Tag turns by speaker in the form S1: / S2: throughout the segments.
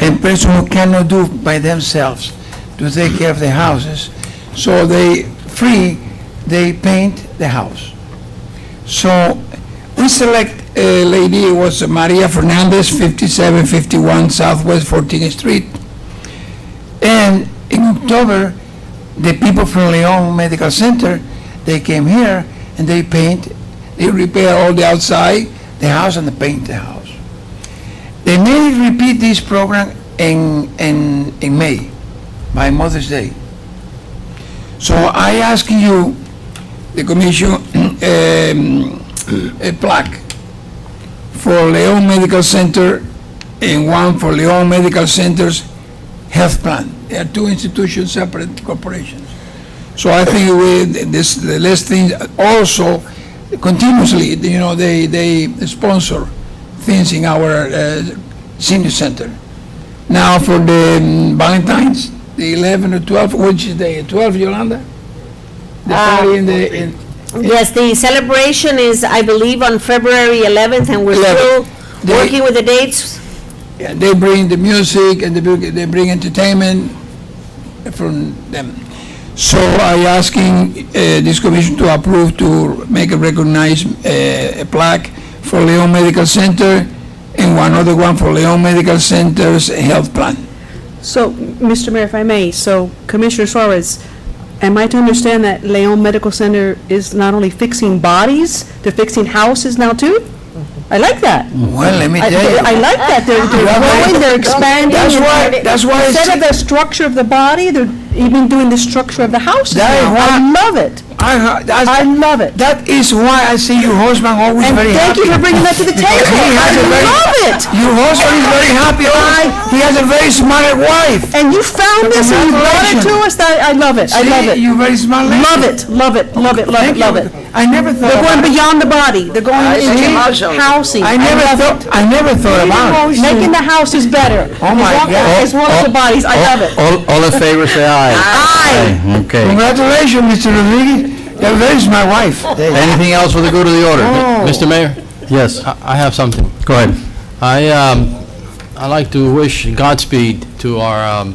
S1: and person who cannot do by themselves to take care of their houses. So they, free, they paint the house. So we select a lady, it was Maria Fernandez, 5751 Southwest 14th Street. And in October, the people from Leon Medical Center, they came here and they paint, they repair all the outside, the house and they paint the house. They may repeat this program in, in, in May, by Mother's Day. So I ask you, the commission, um, a plaque for Leon Medical Center and one for Leon Medical Center's health plan. They are two institutions, separate corporations. So I think we, this, the last thing, also continuously, you know, they, they sponsor things in our uh, senior center. Now for the mm, Valentine's, the 11 or 12, which is the 12, Yolanda? The party in the, in,
S2: Yes, the celebration is, I believe, on February 11th, and we're still
S1: Eleventh. They-
S2: working with the dates.
S1: Yeah, they bring the music and they bring, they bring entertainment from them. So I asking uh, this commission to approve to make a recognized uh, a plaque for Leon Medical Center and one other one for Leon Medical Center's health plan.
S3: So, Mr. Mayor, if I may, so Commissioner Suarez, am I to understand that Leon Medical Center is not only fixing bodies, they're fixing houses now too? I like that.
S1: Well, let me
S3: I
S1: tell you.
S3: I like that. They're
S1: Mm-hmm. Yeah,
S3: they're
S1: but-
S3: growing, they're expanding.
S1: That's
S3: and
S1: why-
S3: they're-
S1: that's why it's-
S3: Instead of the structure of the body, they're even doing the structure of the houses now.
S1: That is
S3: I love it.
S1: I, heard- that's-
S3: I love it.
S1: that is why I see your husband always
S3: And
S1: very
S3: thank
S1: happy.
S3: you for bringing that to the table.
S1: He has a very-
S3: I love it.
S1: Your husband is very happy. always. He has a very smart wife.
S3: And you found this and you brought it to us. That- I love it. I love it.
S1: See, You're very smart lady.
S3: Love it, love it, love it, love it,
S1: Thank
S3: love
S1: you.
S3: it.
S1: I never thought
S3: They're
S1: about
S3: going
S1: it.
S3: beyond the body, they're going
S1: I see.
S3: into housing.
S1: I never thought, I never thought about it.
S3: Making the houses better.
S1: Oh, my
S3: As well-
S1: God.
S3: As well as the bodies, I love it.
S4: All, all in favor, say aye.
S3: I,
S4: Okay.
S1: Congratulations, Mr. Rodriguez. That that is my wife.
S4: Anything else for the good of the order?
S3: Oh.
S5: Mr. Mayor,
S4: Yes,
S5: I I have something.
S4: go ahead.
S5: I, um, I'd like to wish Godspeed to our, um,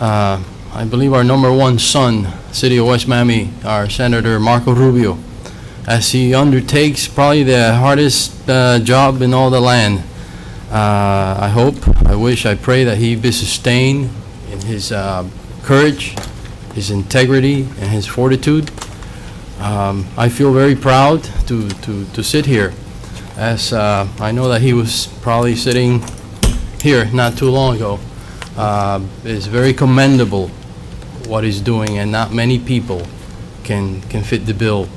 S5: uh, I believe our number one son, City of West Miami, our Senator Marco Rubio, as he undertakes probably the hardest uh, job in all the land. Uh, I hope, I wish, I pray that he be sustained in his uh, courage, his integrity, and his fortitude. Um, I feel very proud to, to, to sit here as uh, I know that he was probably sitting here not too long ago, uh, it's very commendable what he's doing, and not many people can, can fit the bill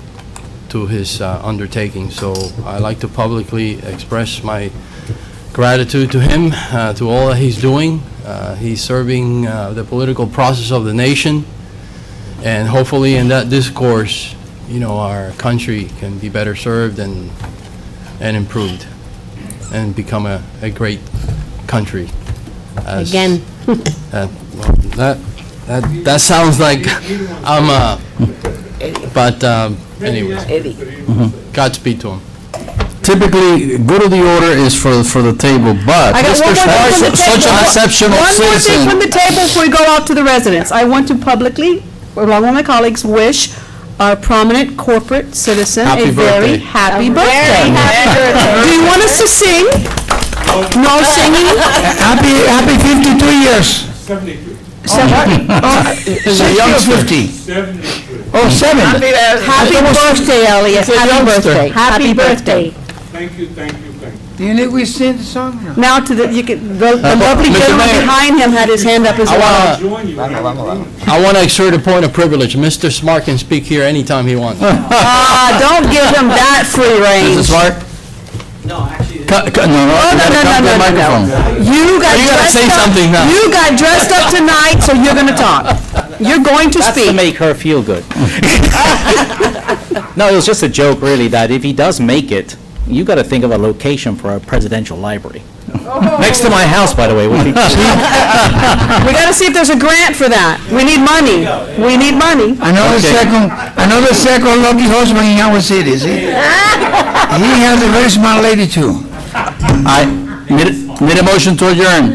S5: to his uh, undertaking. So i like to publicly express my gratitude to him, uh, to all that he's doing. Uh, He's serving uh, the political process of the nation, and hopefully in that discourse, you know, our country can be better served and and improved and become a, a great country. as-
S2: Again.
S5: Uh, well, That, that, that sounds like I'm a, but um, anyway. Mm-hmm. Godspeed to him.
S4: Typically, good of the order is for, for the table, but
S3: I got one
S4: Mr.
S3: more thing from the table.
S4: Suarez, such an exceptional
S3: One more thing from
S4: citizen.
S3: the table before we go out to the residents. I want to publicly, along with my colleagues, wish our prominent corporate citizen
S5: Happy
S3: a very
S5: birthday.
S3: happy birthday. Do you want us to sing? No singing?
S1: Happy, happy 52 years.
S6: 73,
S1: youngster. 50.
S6: 73.
S1: Oh, seven.
S2: Happy birthday, Elliot, happy birthday. Happy birthday.
S6: Thank you, thank you, thank you.
S1: Do you need we sing the song? No.
S3: Now to the, you can, the the lovely
S5: Mr.
S3: gentleman
S5: Mayor.
S3: behind him had his hand up as
S5: I
S3: well.
S5: want to
S6: Join you. Vamos, vamos, vamos.
S5: I want to exert a point of privilege. Mr. Smart can speak here anytime he wants.
S3: Ah, don't give him that free
S4: Mr.
S3: reign.
S4: Smart? No, actually. No, no,
S3: Oh, no, no, no, no, no.
S4: microphone.
S3: You got
S5: You gotta
S3: dressed
S5: say
S3: up-
S5: something now.
S3: You got dressed up tonight, so you're gonna talk. You're going to
S7: That's to
S3: speak.
S7: make her feel good. no, it was just a joke, really, that if he does make it, you got to think of a location for a presidential library. Next to my house, by the way, would be
S3: We gotta see if there's a grant for that. We need money. We need money.
S1: Another
S4: Okay.
S1: second, another second lucky husband in our city, see? He has a very smart lady too.
S4: I, need a- need a motion to adjourn.